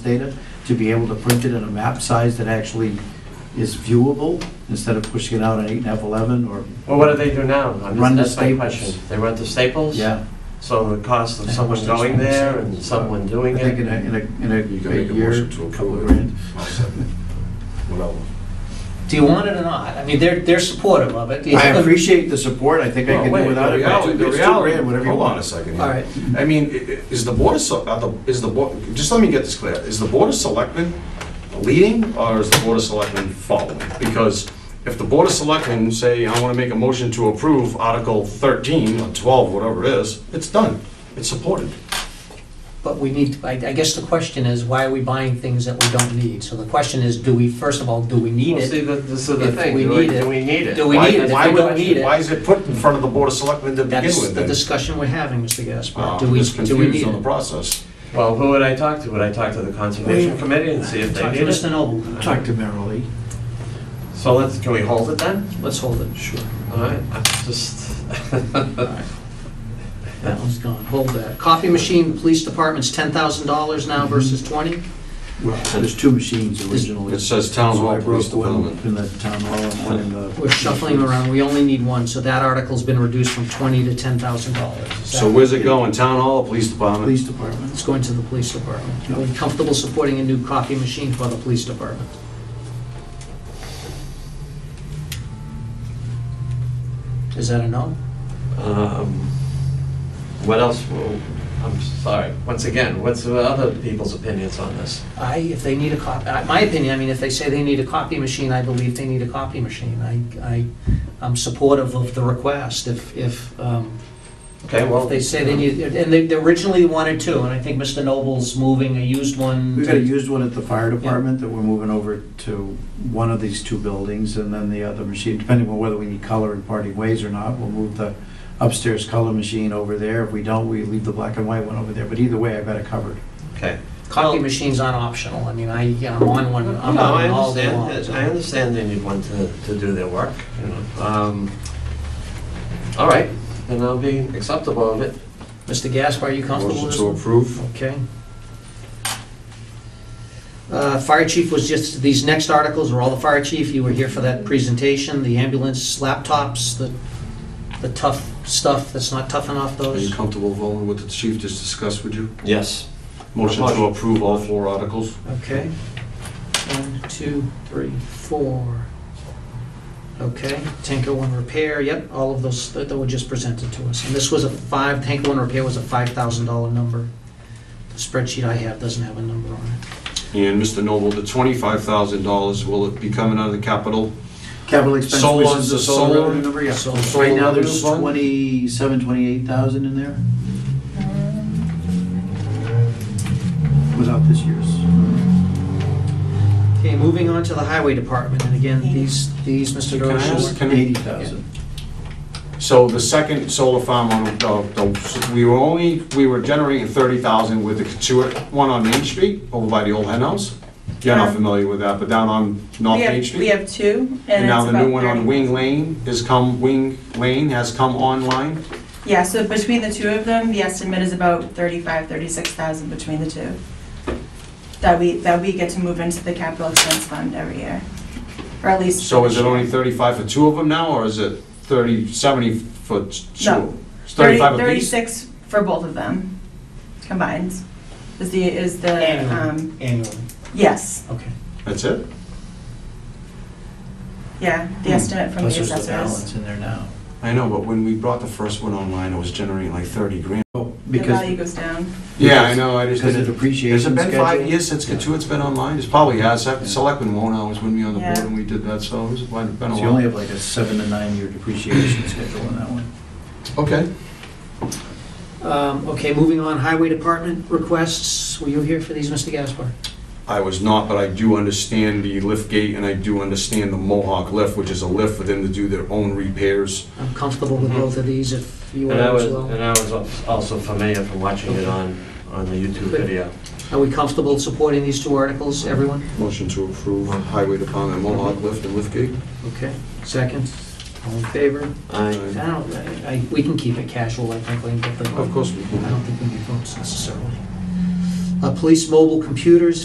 data, to be able to print it in a map size that actually is viewable, instead of pushing it out on eight and a half, 11, or, Well, what do they do now? I mean, Run to that's my Staples. question. They run to Staples? yeah. So the cost of someone going there and someone I doing think in it? a, in a, in You a can make a year, motion to couple approve it. grand. I'll second. Without- Do you want it or not? I mean, they're, they're supportive of it. I appreciate the support, I think I Well, can wait, do without The it, but reality- two- the it's two reality- grand, whatever you Hold on a want. second. here. All right, I mean, i- i- is the board of, Se- are the- is the board, just let me get this clear. Is the board of selectmen leading or is the board of selectmen following? Because if the board of selectmen say, I want to make a motion to approve Article 13 or 12, whatever it is, it's done. It's supported. But we need, I, I guess the question is, why are we buying things that we don't need? So the question is, do we, first of all, do we need Well, see, it? the- this is the If thing, we do we need it, do we need it? do we Why- need it? If why we would- don't need it- Why is it put in front of the board of selectmen to begin That's with the then? discussion we're having, Mr. Gaspar. Uh, Do I'm we, just do we confused need on the it? process. Well, who would I talk to? Would I talk to the Conservation Wait. Committee and see if they Talk to need Mr. it? Noble. talk to Merrill So let's, can we hold it then? Let's hold it. Sure. All right, I'm just, That one's gone. Hold that. Copy machine, police department's ten thousand dollars now versus twenty? Well, there's two machines originally. It says Town So I Hall Police broke one Department. In the town hall and one in the. We're shuffling around. We only need one, so that article's been reduced from twenty to ten thousand dollars. So where's it going? Town Hall or Police Department? Police department. It's going to the police department. Are we comfortable supporting a new copy machine for the police department? Is that a no? um, what else? will- I'm sorry, once again, what's the other people's opinions on this? I, if they need a copy, my opinion, I mean, if they say they need a copy machine, I believe they need a copy machine. I, I, I'm supportive of the request if, if, um, Okay, well. if they say they need, and they they originally wanted two, and I think Mr. Noble's moving a used one. We've to- got a used one at the fire department that we're moving over to one of these two buildings, and then the other machine, depending on whether we need color in parting ways or not, we'll move the upstairs color machine over there. If we don't, we leave the black and white one over there, but either way, I've got it covered. Okay. Copy machines aren't optional. I mean, I, I'm on one, I'm No, on I one all day long. understand, so- I understand they need one to, to do their work, you know. Um, All right, then I'll be acceptable of it. Mr. Gaspar, are you comfortable Motion with this to one? approve? Okay. Uh, Fire chief was just, these next articles were all the fire chief, you were here for that presentation, the ambulance laptops, the, the tough stuff that's not tough enough, Are you those. comfortable following what the chief just discussed with you? Yes. Motion to approve all four articles? Okay. One, two, three, four. Okay, Tanko One Repair, yep, all of those that that were just presented to us. And this was a five, Tanko One Repair was a $5,000 number. The spreadsheet I have doesn't have a number on it. And Mr. Noble, the twenty-five thousand dollars, will it be coming out of the capital? Capital expense, Solar, which is the the solar solar? revenue number, yeah. So- Right now, revenue there's fund? twenty-seven, twenty-eight thousand in there. Um. Without this year's. Okay, moving on to the highway department, and again, these, these, Mr. Can I ask- Dorsey. can I- Eighty thousand. So the second solar farm on, uh, the- we were only, we were generating thirty thousand with the Katuitt one on Main Street, over by the old hen house? You're not Um, familiar with that, but down on North We Main have, we Street? have two, and And now it's the new about one on 30. Wing Lane has come, Wing Lane has come online? Yeah, so between the two of them, the estimate is about 35, 36,000 between the two. That we, that we get to move into the capital expense fund every year, or at least. So is it this year. only thirty-five for two of them now, or is it thirty, seventy for t- two? No. It's 30 thirty-five apiece? 36 for both of them combined, is the, is the, um, Annually, yes, okay. That's it? yeah, the Hmm. estimate from the Plus there's the assessors. balance in there now. I know, but when we brought the first one online, it was generating like thirty grand. The Because, value goes down. Yeah, I know, I just because of didn't. depreciation Has it been five schedule. years since Katuitt's been online? It's probably has, Yeah. Selectman won't always when we on the board Yeah. and we did that, so it's been been a So you only while. have like a seven to nine year depreciation schedule on that one. Okay. Um, okay, moving on, highway department requests, were you here for these, Mr. Gaspar? I was not, but I do understand the lift gate and I do understand the Mohawk lift, which is a lift for them to do their own repairs. I'm comfortable with Mhm. Mm-hmm. both of these if you are And I was, as well. and I was al- also familiar from watching it on, on the YouTube Good. video. Are we comfortable supporting these two articles, everyone? Motion to approve highway department Mohawk lift and lift gate. Okay, second, all in favor? I I, don't, I, I- we can keep it casual, I think, we can get the. Of course we I can. don't think we need votes necessarily. Uh, police mobile computers,